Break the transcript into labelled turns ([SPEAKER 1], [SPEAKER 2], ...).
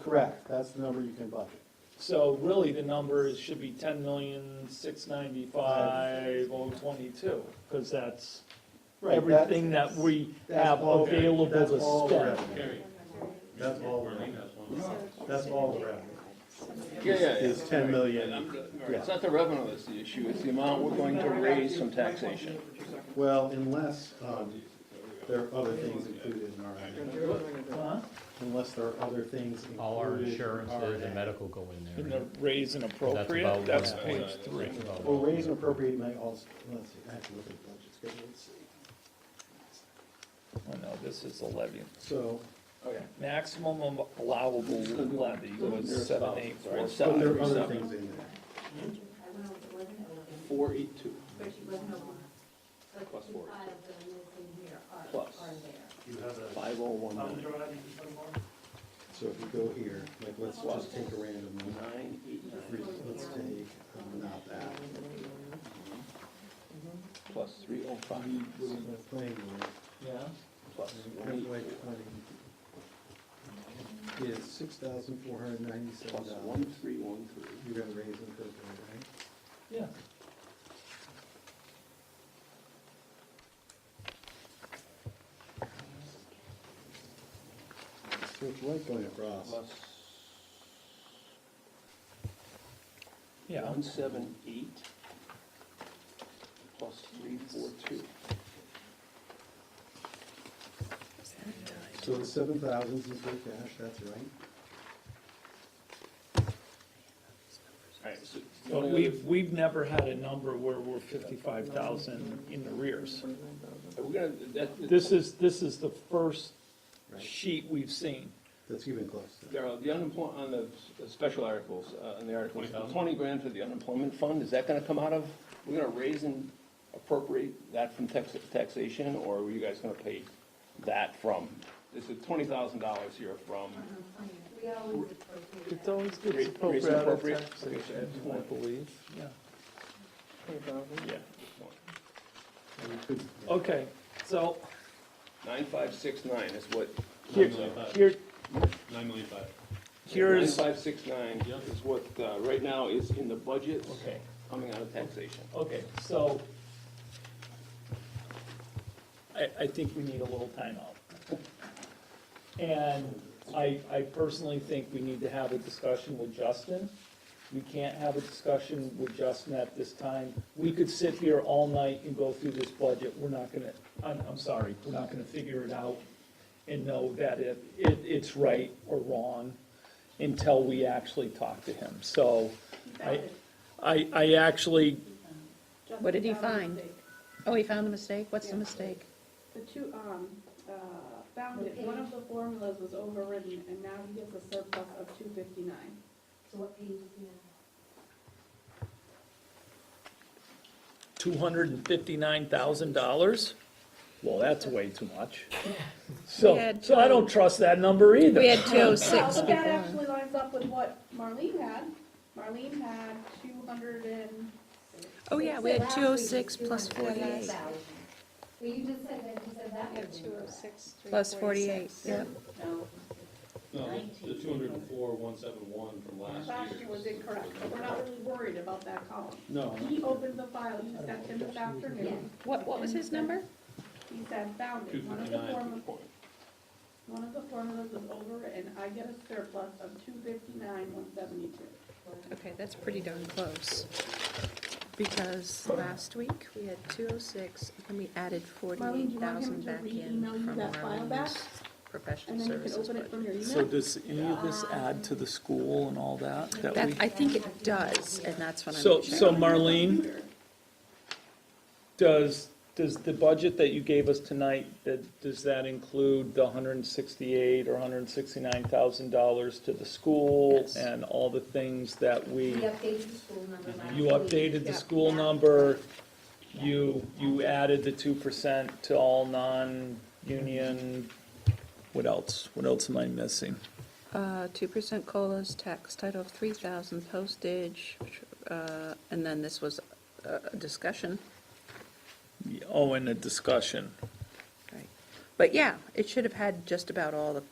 [SPEAKER 1] Correct, that's the number you can budget.
[SPEAKER 2] So really, the number is, should be ten million, six ninety-five, oh twenty-two, because that's
[SPEAKER 1] Right,
[SPEAKER 2] everything that we
[SPEAKER 1] that's
[SPEAKER 2] have
[SPEAKER 1] all-
[SPEAKER 2] available
[SPEAKER 1] that's
[SPEAKER 2] to
[SPEAKER 1] all
[SPEAKER 2] spend.
[SPEAKER 1] revenue.
[SPEAKER 3] Gary,
[SPEAKER 1] That's all the
[SPEAKER 3] Marlene
[SPEAKER 1] revenue,
[SPEAKER 3] has one.
[SPEAKER 1] that's all the revenue,
[SPEAKER 4] Yeah, yeah, yeah.
[SPEAKER 1] is ten
[SPEAKER 4] And
[SPEAKER 1] million.
[SPEAKER 4] I'm- all right,
[SPEAKER 1] Yeah.
[SPEAKER 4] It's not the revenue that's the issue, it's the amount we're going to raise from taxation.
[SPEAKER 1] Well, unless, um, there are other things included in our,
[SPEAKER 2] Huh?
[SPEAKER 1] unless there are other things included.
[SPEAKER 5] All our
[SPEAKER 1] in
[SPEAKER 5] insurances and
[SPEAKER 1] our-
[SPEAKER 5] medical go in
[SPEAKER 2] And
[SPEAKER 5] there.
[SPEAKER 2] the raise and appropriate,
[SPEAKER 5] about
[SPEAKER 2] that's
[SPEAKER 5] what-
[SPEAKER 2] page three.
[SPEAKER 5] Oh.
[SPEAKER 1] Well, raise and appropriate may also, let's see, I have to look at the budget schedule, let's see.
[SPEAKER 2] Oh, no, this is the levy.
[SPEAKER 1] So,
[SPEAKER 4] Okay.
[SPEAKER 2] Maximum allowable levy was seven eight four
[SPEAKER 4] Right,
[SPEAKER 1] but
[SPEAKER 2] seven.
[SPEAKER 1] there are other things in there.
[SPEAKER 4] Four eight two
[SPEAKER 6] Plus four.
[SPEAKER 4] Plus. five oh one nine
[SPEAKER 1] So if you go here, like, let's just take a random number.
[SPEAKER 4] nine eight nine
[SPEAKER 1] Let's take, um, not that,
[SPEAKER 4] plus three oh five
[SPEAKER 1] the planning board.
[SPEAKER 2] Yeah,
[SPEAKER 4] plus one
[SPEAKER 1] FY
[SPEAKER 4] eight
[SPEAKER 1] twenty is six thousand four hundred ninety-seven
[SPEAKER 4] plus
[SPEAKER 1] dollars.
[SPEAKER 4] one three one three.
[SPEAKER 1] You're gonna raise and appropriate,
[SPEAKER 2] yeah.
[SPEAKER 1] right? So it's right going across.
[SPEAKER 4] Plus
[SPEAKER 2] Yeah,
[SPEAKER 4] one seven eight plus three four two.
[SPEAKER 1] So the seven thousands is free cash, that's right.
[SPEAKER 4] Alright, so.
[SPEAKER 2] but we've, we've never had a number where we're fifty-five thousand in the rears.
[SPEAKER 4] Are we gonna, that,
[SPEAKER 2] This is, this is the first
[SPEAKER 1] Right.
[SPEAKER 2] sheet we've seen.
[SPEAKER 1] That's even close to that.
[SPEAKER 4] Darryl, the unemployment, on the s- the special articles, uh, on the articles, twenty grand for the unemployment fund, is that gonna come out of, we're gonna raise and appropriate that from tax, taxation, or are you guys gonna pay that from? This is twenty thousand dollars here from,
[SPEAKER 2] It's always good
[SPEAKER 4] Raise-
[SPEAKER 2] to
[SPEAKER 4] raise and appropriate.
[SPEAKER 2] appropriate taxation,
[SPEAKER 4] Okay.
[SPEAKER 2] I believe, yeah.
[SPEAKER 4] yeah,
[SPEAKER 1] And we could-
[SPEAKER 2] Okay, so
[SPEAKER 4] nine five six nine is what.
[SPEAKER 2] here, here,
[SPEAKER 3] Nine million five.
[SPEAKER 2] here's,
[SPEAKER 4] Nine five six nine is what, uh, right now is in the budget,
[SPEAKER 2] okay,
[SPEAKER 4] coming out of taxation.
[SPEAKER 2] okay, so I, I think we need a little timeout. And I, I personally think we need to have a discussion with Justin. We can't have a discussion with Justin at this time. We could sit here all night and go through this budget. We're not gonna, I'm, I'm sorry, we're not gonna figure it out and know that it, it, it's right or wrong until we actually talk to him. So I, I, I actually,
[SPEAKER 7] What did he find? Oh, he found the mistake? What's the mistake?
[SPEAKER 8] The two, um, uh, found it, one of the formulas was overridden, and now he gets a surplus of two fifty-nine.
[SPEAKER 2] two hundred and fifty-nine thousand dollars? Well, that's way too much.
[SPEAKER 7] We
[SPEAKER 2] So,
[SPEAKER 7] had
[SPEAKER 2] so I
[SPEAKER 7] two.
[SPEAKER 2] don't trust that number either.
[SPEAKER 7] We had two oh
[SPEAKER 8] Well,
[SPEAKER 7] six
[SPEAKER 8] but that
[SPEAKER 7] before.
[SPEAKER 8] actually lines up with what Marlene had. Marlene had two hundred and,
[SPEAKER 7] Oh, yeah, we had two oh six plus forty-eight,
[SPEAKER 6] Well, you just said that, you said that. would be correct.
[SPEAKER 7] plus forty-eight, yep.
[SPEAKER 3] No, the two hundred and four, one seven one from last
[SPEAKER 8] last
[SPEAKER 3] year.
[SPEAKER 8] year was incorrect, but we're not really worried about that column.
[SPEAKER 1] No,
[SPEAKER 8] He opened the file, he sent him this afternoon,
[SPEAKER 7] What, what was his number?
[SPEAKER 8] he said found
[SPEAKER 3] Two
[SPEAKER 8] it, one of the
[SPEAKER 3] fifty-nine.
[SPEAKER 8] formulas, one of the formulas was overridden, I get a surplus of two fifty-nine, one seventy-two.
[SPEAKER 7] Okay, that's pretty darn close. Because last week, we had two oh six, and we added
[SPEAKER 8] Marlene, do
[SPEAKER 7] forty-eight
[SPEAKER 8] you want him
[SPEAKER 7] thousand
[SPEAKER 8] to
[SPEAKER 7] back in
[SPEAKER 8] re-email you
[SPEAKER 7] from
[SPEAKER 8] that file back?
[SPEAKER 7] Marlene's professional
[SPEAKER 8] And then you can
[SPEAKER 7] services
[SPEAKER 8] open
[SPEAKER 7] budget.
[SPEAKER 8] it from your
[SPEAKER 2] So
[SPEAKER 8] email.
[SPEAKER 2] does any of this add to the school and all that? that
[SPEAKER 7] That,
[SPEAKER 2] we-
[SPEAKER 7] I think it does, and that's what I'm
[SPEAKER 2] So,
[SPEAKER 7] checking.
[SPEAKER 2] so Marlene, does, does the budget that you gave us tonight, that, does that include the hundred and sixty-eight or hundred and sixty-nine thousand dollars to the school?
[SPEAKER 7] Yes.
[SPEAKER 2] And all the things that
[SPEAKER 6] We
[SPEAKER 2] we,
[SPEAKER 6] updated the school number last
[SPEAKER 2] you
[SPEAKER 6] week.
[SPEAKER 2] updated the school number, you, you added the two percent to all non-union, what else? What else am I missing?
[SPEAKER 7] Uh, two percent colas, tax title of three thousand, postage, uh, and then this was a a discussion.
[SPEAKER 2] Oh, and a discussion.
[SPEAKER 7] Right. But yeah, it should have had just about all the